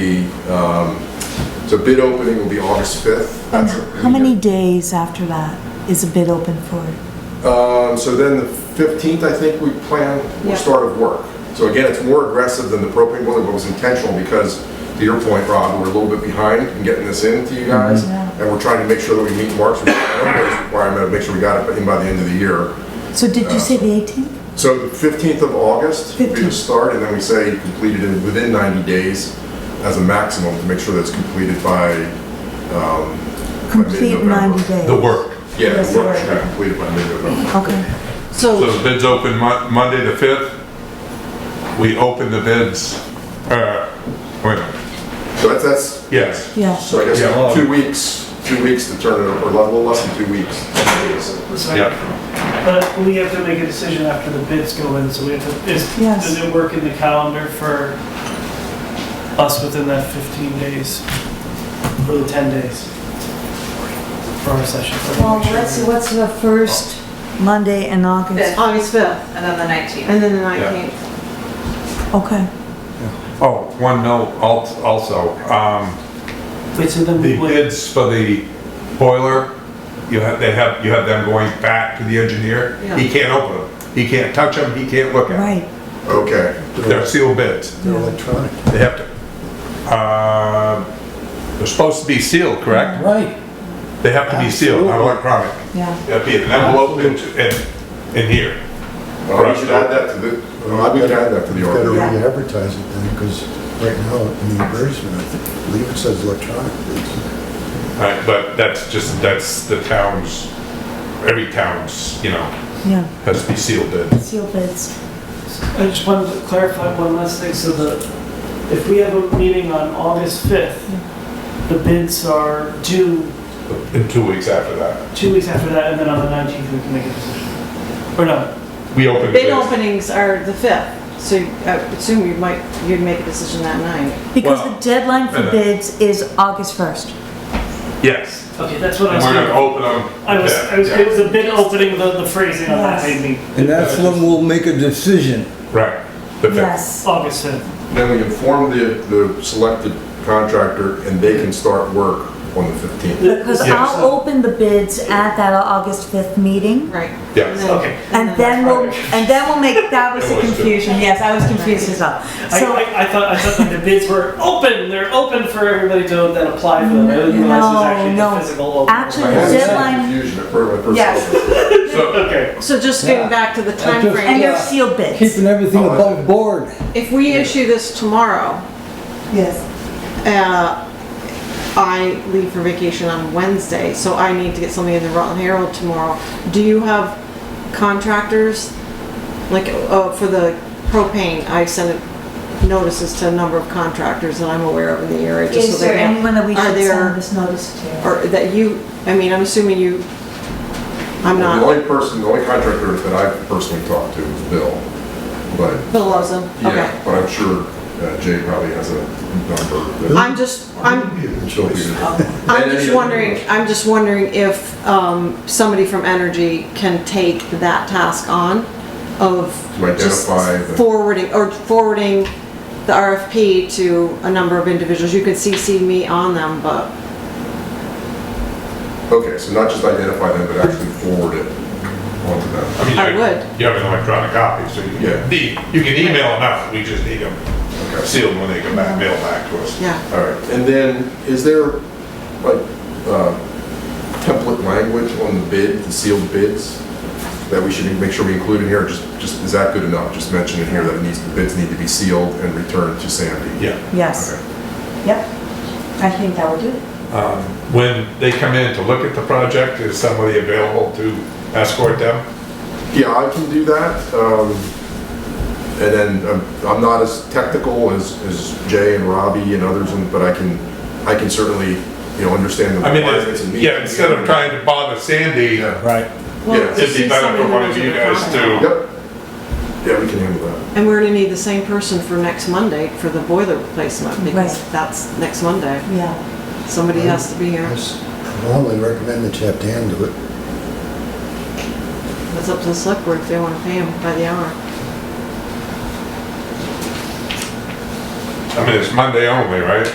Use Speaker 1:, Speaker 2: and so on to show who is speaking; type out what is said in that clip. Speaker 1: Um, So bid opening will be August 5th.
Speaker 2: And
Speaker 1: That's-
Speaker 2: how many days after that is a bid open for?
Speaker 1: Um, So then the 15th, I think we plan, will
Speaker 3: Yeah.
Speaker 1: start of work. So again, it's more aggressive than the propane boiler, but it was intentional because, to your point, Rob, we're a little bit behind in getting this in to you
Speaker 2: Mm-hmm.
Speaker 1: guys.
Speaker 2: Yeah.
Speaker 1: And we're trying to make sure that we meet Mark's requirement, of make sure we got it in by the end of the year.
Speaker 2: So did you say the 18th?
Speaker 1: So the 15th of August will be the
Speaker 2: 15th.
Speaker 1: start, and then we say completed in, within 90 days as a maximum to make sure that's completed by, um, by
Speaker 2: Complete
Speaker 1: mid-November.
Speaker 2: 90 days?
Speaker 4: The work.
Speaker 1: Yeah,
Speaker 2: Yes,
Speaker 1: the work
Speaker 2: right.
Speaker 1: should be completed by mid-November.
Speaker 2: Okay.
Speaker 4: So
Speaker 3: So,
Speaker 4: the bids open Mon- Monday the 5th. We open the bids, uh, wait a minute,
Speaker 1: So that's, that's,
Speaker 4: yes.
Speaker 2: Yeah,
Speaker 1: so I
Speaker 4: Yeah,
Speaker 1: guess
Speaker 4: well-
Speaker 1: two weeks, two weeks to turn it over, a little less than two weeks.
Speaker 4: Yeah.
Speaker 5: But we have to make a decision after the bids go in, so we have to, is,
Speaker 2: Yes.
Speaker 5: does it work in the calendar for us within that 15 days? For the 10 days? For our session?
Speaker 2: well, what's, what's the first Monday in August?
Speaker 6: August 5th,
Speaker 7: And then the 19th.
Speaker 6: and then the
Speaker 4: Yeah.
Speaker 6: 19th.
Speaker 2: Okay,
Speaker 4: Oh, one note al- also, um,
Speaker 5: Wait, so then
Speaker 4: the
Speaker 5: we wait.
Speaker 4: bids for the boiler, you have, they have, you have them going back to the engineer. He can't open them, he can't touch them, he can't look at
Speaker 2: right.
Speaker 1: Okay,
Speaker 4: them. They're sealed bids.
Speaker 2: yeah.
Speaker 4: They have to, uh, they're supposed to be sealed, correct?
Speaker 8: Right.
Speaker 4: They have to be sealed, not electronic.
Speaker 2: Yeah,
Speaker 4: That'd be an envelope in, in- in here.
Speaker 1: well, we should add that to the, we can add that to the
Speaker 9: You've got to
Speaker 1: order.
Speaker 9: re-advertise it then, because right now, in the advertisement, I believe it says electronic. bids.
Speaker 4: Right, Uh, but that's just, that's the town's, every town's, you know,
Speaker 2: yeah,
Speaker 4: has to be sealed bid.
Speaker 2: seal bids.
Speaker 5: I just wanted to clarify one last thing, so the, if we have a meeting on August 5th, the bids are due
Speaker 4: In two weeks after that,
Speaker 5: two weeks after that, and then on the 19th, we can make a decision. Or no,
Speaker 4: we open the
Speaker 6: Bid
Speaker 4: bids.
Speaker 6: openings are the 5th, so I would assume you might, you'd make a decision that night.
Speaker 2: Because
Speaker 4: Well,
Speaker 2: the deadline for
Speaker 4: uh,
Speaker 2: bids is August 1st.
Speaker 4: Yes,
Speaker 5: okay, that's what I
Speaker 4: and
Speaker 5: was.
Speaker 4: we're gonna
Speaker 5: thinking.
Speaker 4: open them.
Speaker 5: I was, I was, it was a bit opening the, the phrasing on that
Speaker 2: Yes.
Speaker 5: made me.
Speaker 8: And that's when we'll make a decision.
Speaker 4: Right. the bid.
Speaker 2: Yes,
Speaker 5: August 5th.
Speaker 1: Then we inform the, the selected contractor, and they can start work on the 15th.
Speaker 2: because
Speaker 4: Yes.
Speaker 2: I'll open the bids at that August 5th meeting.
Speaker 6: Right.
Speaker 4: Yes.
Speaker 6: And then-
Speaker 5: Okay.
Speaker 2: And then we'll, and then we'll make, that was the
Speaker 4: That was good.
Speaker 2: confusion, yes, I was confused as well.
Speaker 5: I,
Speaker 2: So,
Speaker 5: I, I thought, I thought like the bids were open, they're open for everybody to then apply for them. I didn't realize it
Speaker 2: No,
Speaker 5: was actually
Speaker 2: no.
Speaker 5: the physical open.
Speaker 2: Actually,
Speaker 1: I
Speaker 2: the
Speaker 1: had some
Speaker 2: deadline,
Speaker 1: Confusion at first, my first.
Speaker 2: Yes.
Speaker 4: So,
Speaker 5: Okay,
Speaker 6: So just
Speaker 8: Yeah.
Speaker 6: getting back to the
Speaker 8: I just-
Speaker 6: timeframe,
Speaker 2: and they're
Speaker 6: yes.
Speaker 2: sealed bids.
Speaker 8: Keeping everything above board.
Speaker 6: if we issue this tomorrow,
Speaker 2: Yes.
Speaker 6: uh, I leave for vacation on Wednesday, so I need to get something in the Rutland Herald tomorrow. Do you have contractors, like, uh, for the propane, I sent notices to a number of contractors that I'm aware of in the area, just so
Speaker 2: Is
Speaker 6: they
Speaker 2: there
Speaker 6: have.
Speaker 2: anyone that we
Speaker 6: Are
Speaker 2: should
Speaker 6: there-
Speaker 2: send this notice to?
Speaker 6: Or that you, I mean, I'm assuming you, I'm
Speaker 1: The
Speaker 6: not,
Speaker 1: only person, the only contractor that I've personally talked to is Bill, but,
Speaker 6: Bill loves them,
Speaker 1: yeah,
Speaker 6: okay.
Speaker 1: but I'm sure uh, Jay probably has a number. that-
Speaker 6: I'm just, I'm,
Speaker 1: She'll be
Speaker 6: I'm just wondering, I'm just wondering if, um, somebody from Energy can take that task on of
Speaker 1: To
Speaker 6: just
Speaker 1: identify the-
Speaker 6: forwarding, or forwarding the RFP to a number of individuals. You could CC me on them, but
Speaker 1: Okay, so not just identify them, but actually forward it onto them.
Speaker 4: I mean, you
Speaker 6: I
Speaker 4: have-
Speaker 6: would.
Speaker 4: You have an electronic copy, so you
Speaker 1: Yeah.
Speaker 4: can, the- you can email them out, we just need them
Speaker 1: Okay.
Speaker 4: sealed when they come back, mail back to us.
Speaker 6: yeah.
Speaker 1: All right, and then is there like uh, template language on the bid, the sealed bids? That we should make sure we include in here, or just, just, is that good enough? Just mention in here that it needs, the bids need to be sealed and returned to Sandy?
Speaker 4: Yeah.
Speaker 2: Yes,
Speaker 1: Okay.
Speaker 2: yep. I think that would do it.
Speaker 4: Um, When they come in to look at the project, is somebody available to escort them?
Speaker 1: Yeah, I can do that. um, And then um, I'm not as technical as, as Jay and Robbie and others, and- but I can, I can certainly, you know, understand the
Speaker 4: I mean,
Speaker 1: requirements
Speaker 4: it's-
Speaker 1: and meet.
Speaker 4: yeah, instead of trying to bother Sandy,
Speaker 1: Yeah.
Speaker 8: Right.
Speaker 6: Well,
Speaker 1: Yeah,
Speaker 4: it'd
Speaker 6: just
Speaker 4: be
Speaker 6: see
Speaker 4: better
Speaker 6: somebody
Speaker 4: for one
Speaker 6: who
Speaker 4: of
Speaker 6: knows
Speaker 4: you
Speaker 6: what they're
Speaker 4: guys
Speaker 6: talking about.
Speaker 1: Yep.
Speaker 4: to,
Speaker 1: Yeah, we can handle that.
Speaker 6: And we're gonna need the same person for next Monday for the boiler replacement, because
Speaker 2: Right.
Speaker 6: that's next Monday.
Speaker 2: Yeah,
Speaker 6: Somebody has to be here.
Speaker 9: I s- Normally recommend that you have Dan do it.
Speaker 6: It's up to the select board if they wanna pay him by the hour.
Speaker 4: I mean, it's Monday only, right?